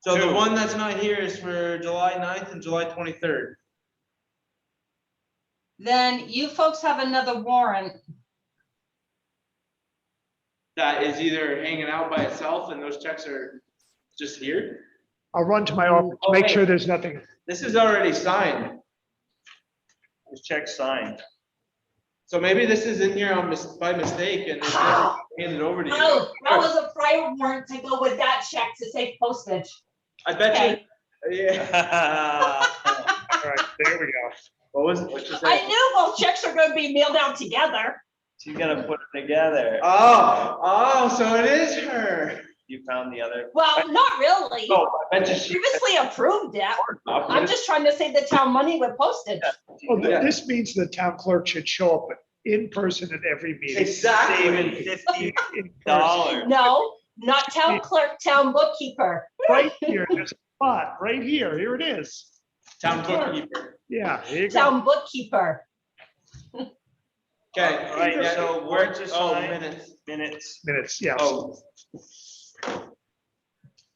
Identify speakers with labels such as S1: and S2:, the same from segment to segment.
S1: So the
S2: Dude.
S1: one that's not here is for July 9th and July twenty-third.
S3: Then you folks have another warrant.
S1: That is either hanging out by itself and those checks are just here.
S4: I'll run to my office, to make
S1: Okay.
S4: sure there's nothing.
S1: This is already signed.
S2: This check signed.
S1: So maybe this is in here on mis- by mistake and it's never handed over to you.
S5: No, Oh, that was a prior warrant to go with that check to save postage.
S1: I bet you. Yeah.
S4: All right, there we go.
S1: What was, what you
S5: I
S1: say?
S5: knew both checks are gonna be mailed out together.
S2: She's gonna put it together.
S1: Oh, oh, so it is her.
S2: You found the other.
S5: Well, not really.
S2: Oh, I bet you she.
S5: Previously approved it. I'm
S1: I'll put it-
S5: just trying to save the town money with postage.
S4: Well,
S1: Yeah.
S4: th- this means the town clerk should show up in person at every meeting.
S2: Saving
S1: Exactly.
S2: fifty
S4: In person,
S2: dollars.
S5: No, not town clerk, town bookkeeper.
S4: Right here, there's a spot, right here, here it is.
S1: Town bookkeeper.
S4: Yeah, here you go.
S5: Town bookkeeper.
S1: Okay.
S2: All right,
S1: yeah,
S2: so
S1: we're-
S2: just
S1: Oh,
S2: signed.
S1: minutes.
S2: Minutes.
S4: Minutes, yeah.
S2: Oh.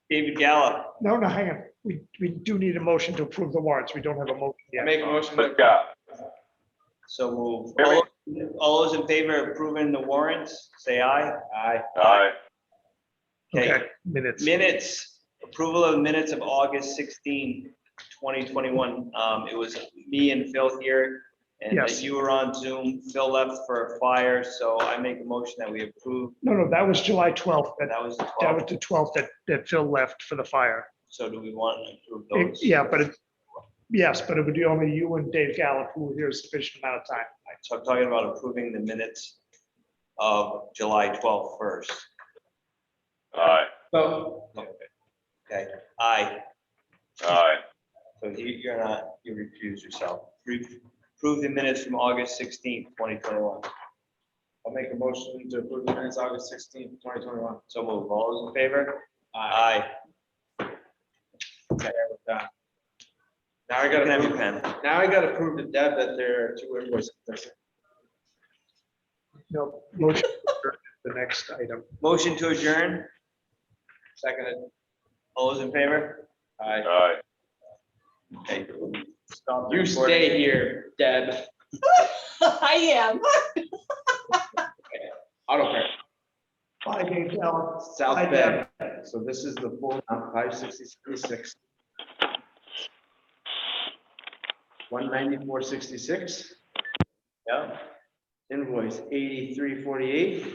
S2: David Gallup,
S4: No, no, hang on. We, we do need a motion to approve the warrants. We don't have a motion yet.
S1: Make a motion to
S6: Yeah,
S2: so move. All- All those in favor of approving the warrants, say aye. Aye.
S6: aye,
S4: Okay, minutes.
S2: Minutes, approval of minutes of August 16, 2021. Um, It was me and Phil here, and uh,
S4: Yes.
S2: you were on Zoom. Phil left for a fire, so I make a motion that we approve.
S4: No, no, that was July 12th. That,
S2: And that was the
S4: that was
S2: 12th.
S4: the 12th that, that Phil left for the fire.
S2: So do we want to approve
S4: It-
S2: those?
S4: Yeah, but it, yes, but it would be only you and Dave Gallup who were here a sufficient amount of time.
S2: So I'm talking about approving the minutes of July 12th first.
S6: aye,
S1: vote.
S2: Okay, aye.
S6: aye,
S2: So you- you're not, you recuse yourself. Re- Approve the minutes from August 16, 2021.
S1: I'll make a motion to approve the minutes August sixteenth, twenty twenty-one.
S2: So move. All those in favor? Aye.
S1: Okay, we're done. Now I
S2: Can I
S1: gotta,
S2: have your
S1: prove-
S2: pen?
S1: now I gotta prove to Deb that there are two invoices. missing.
S4: No, motion, for the next item.
S2: Motion to adjourn.
S1: Seconded.
S2: All those in favor?
S1: Aye.
S6: aye.
S2: Okay. Stop the
S1: You
S2: recording.
S1: stay here, Deb.
S5: I am.
S1: Auto park,
S4: Bye, Dave Gallup.
S1: South
S4: Hi,
S1: Bend. So this is the full amount, five sixty-six. One ninety-four sixty-six,
S2: Yeah.
S1: invoice eighty-three forty-eight.